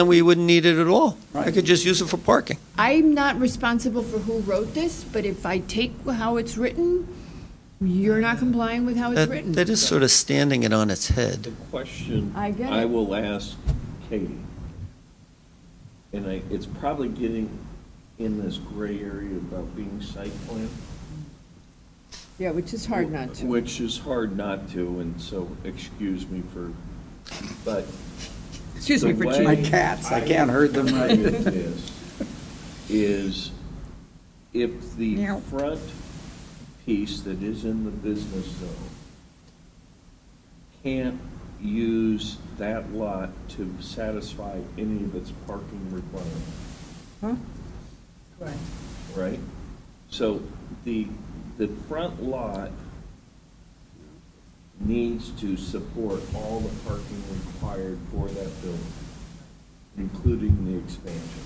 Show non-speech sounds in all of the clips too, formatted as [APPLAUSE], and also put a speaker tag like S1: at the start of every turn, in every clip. S1: then we wouldn't need it at all. I
S2: Right.
S1: could just use it for parking.
S3: I'm not responsible for who wrote this, but if I take how it's written, you're not complying with how Oh, it's
S1: That,
S3: written.
S1: that is sort of standing it on its
S4: The
S1: head.
S4: question
S3: I get
S4: I
S3: it.
S4: will ask Katie, and I, it's probably getting in this gray area about being site plan.
S3: Yeah, which is hard not to.
S4: Which is hard not to, and so excuse me for, but.
S3: Excuse me
S4: the
S3: for
S4: way
S2: My cats, I can't herd them right.
S4: view this Is if the front piece that is in the business zone can't use that lot to satisfy any of its parking requirements right? So the, the front lot needs to support all the parking required for that building, including the expansion.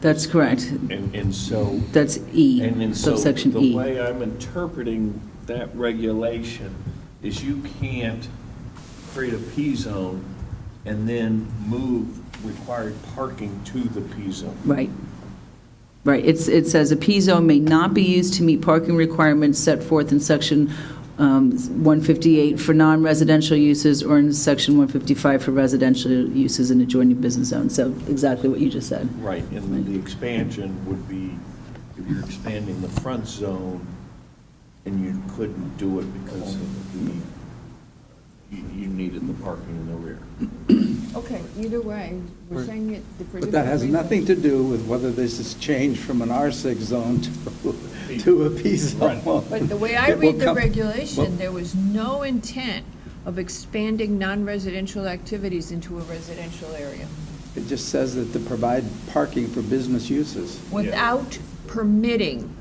S5: That's correct.
S4: And, and so.
S5: That's E,
S4: And then so
S5: subsection
S4: the
S5: E.
S4: way I'm interpreting that regulation is you can't create a P-zone and then move required parking to the P-zone.
S5: Right. Right. It's, it says a P-zone may not be used to meet parking requirements set forth in section um, 158 for non-residential uses or in section 155 for residential uses in adjoining business zones. So exactly what you just said.
S4: Right, and the expansion would be, if you're expanding the front zone, and you couldn't do it because of the, you, you needed the parking in the rear.
S3: Okay, either way, we're saying it for
S2: But that has nothing to do with whether this is changed from an R6 zone to, to a P zone.
S3: But the way I
S2: It will
S3: read the
S2: come-
S3: regulation,
S2: well-
S3: there was no intent of expanding non-residential activities into a residential area
S2: It just says that to provide parking for business uses.
S3: without permitting,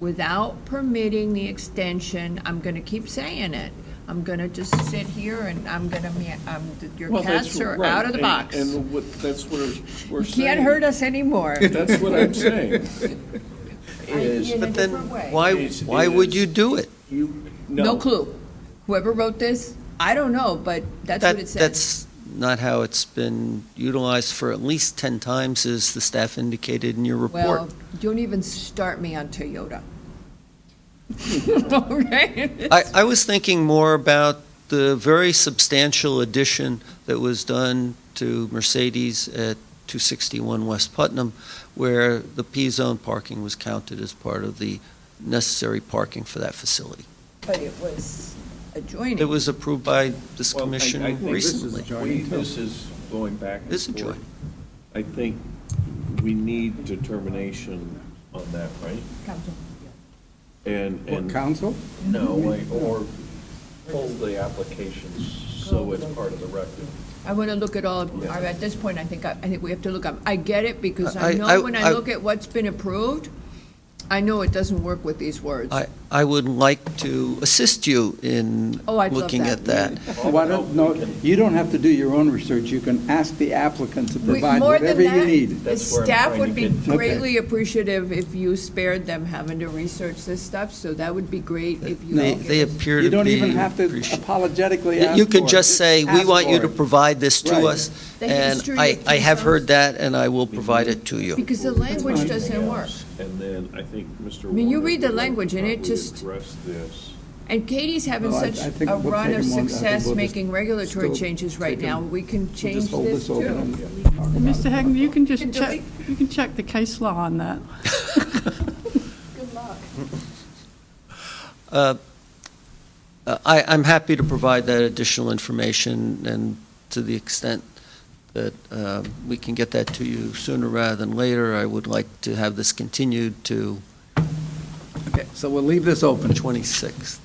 S3: without permitting the extension, I'm gonna keep saying it. I'm gonna just sit here and I'm gonna, mea- um, your cats are out of the box. You
S4: And what, that's what we're- we're saying.
S3: can't hurt us anymore.
S4: That's what I'm
S1: [LAUGHS]
S4: saying,
S3: In a
S4: is
S1: But then,
S3: different way.
S1: why,
S4: It's- it
S1: why would
S4: is-
S1: you do it?
S4: you, [LAUGHS] no.
S3: No clue. Whoever wrote this, I don't know, but that's what it
S1: That,
S3: says.
S1: that's not how it's been utilized for at least 10 times, as the staff indicated in your
S3: Well,
S1: report.
S3: don't even start me
S1: [LAUGHS]
S3: on Toyota. [LAUGHS] Okay?
S1: I, I was thinking more about the very substantial addition that was done to Mercedes at 261 West Putnam, where the P-zone parking was counted as part of the necessary parking for that facility.
S3: But it was adjoining.
S1: It was approved by this
S4: Well, I- I
S1: commission
S4: think this is
S1: recently.
S4: we- This is going back and forth.
S1: This is joint.
S4: I think we need determination on that, right?
S3: Council.
S4: And,
S2: What,
S4: and.
S2: council?
S4: No, like, or pull the applications so it's part of the record.
S3: I want to look at all, of-
S4: Yeah.
S3: at this point, I think, I I think we have to look, up- I get it, because
S1: I-
S3: I
S1: I-
S3: know when
S1: I-
S3: I look at what's been approved, I know it doesn't work with these words.
S1: I, I would like to assist you in
S3: Oh, I'd love
S1: looking at
S3: that.
S1: that.
S2: Why don't, no, you don't have to do your own research. You can ask the applicant to provide whatever you need.
S3: The
S4: That's where I'm
S3: staff
S4: trying
S3: would
S4: to
S3: be
S4: get
S2: to. Okay.
S3: greatly appreciative if you spared them having to research this stuff, so that would be great if you.
S1: They,
S3: could give
S1: they
S3: us-
S1: appear
S2: You
S1: to
S2: don't
S1: be
S2: even have to
S1: appreciative.
S2: apologetically
S1: You
S2: ask
S1: you can
S2: for it.
S1: just say, we
S2: Ask
S1: want you
S2: for
S1: to
S2: it."
S1: provide this
S2: Right.
S1: to us,
S3: The
S1: and
S3: history
S1: I,
S3: of
S1: I have
S3: Tucson.
S1: heard that, and I will provide it to you.
S3: Because the language doesn't work.
S4: And then I think Mr.
S3: I mean, you
S4: Warner
S3: read the
S4: would
S3: language and it
S4: probably
S3: just-
S4: Address this.
S3: And Katie's having
S2: Well, I-
S3: such
S2: I think
S3: a
S2: we'll
S3: run
S2: take
S3: of
S2: them on- I think
S3: success
S2: we'll just
S3: making regulatory
S2: still
S3: changes right
S2: take them-
S3: now, we can
S2: We'll
S3: change
S2: just hold
S3: this
S2: open
S3: too.
S2: and talk about it.
S6: Mr. Hagan, you can
S3: Can
S6: just check,
S3: delete.
S6: you can check the case law on that.
S3: [LAUGHS] Good luck.
S1: Uh, I, I'm happy to provide that additional information, and to the extent that uh, we can get that to you sooner rather than later, I would like to have this continued to
S2: Okay, So we'll leave this
S1: the
S2: open.
S1: 26th.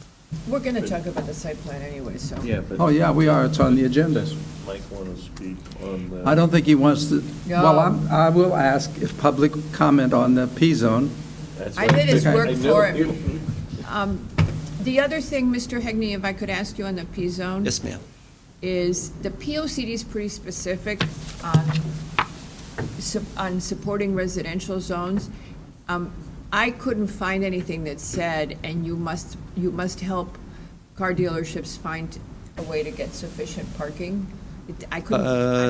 S3: We're gonna talk about the site plan anyway, so.
S4: Yeah,
S2: Oh,
S4: but
S2: yeah, we are. It's on the agenda.
S4: does Mike want to speak on the?
S2: I don't think he wants to, well,
S3: No.
S2: I'm, I will ask if public comment on the P-zone.
S4: That's
S3: I
S4: what-
S3: did his
S2: Okay.
S3: work
S4: I know.
S3: for him. Um, The other thing, Mr. Hegney, if I could ask you on the P-zone?
S1: Yes, ma'am.
S3: is the POCD is pretty specific on, sup- on supporting residential zones. Um, I couldn't find anything that said, and you must, you must help car dealerships find a way to get sufficient parking. It- I couldn't.
S1: Uh,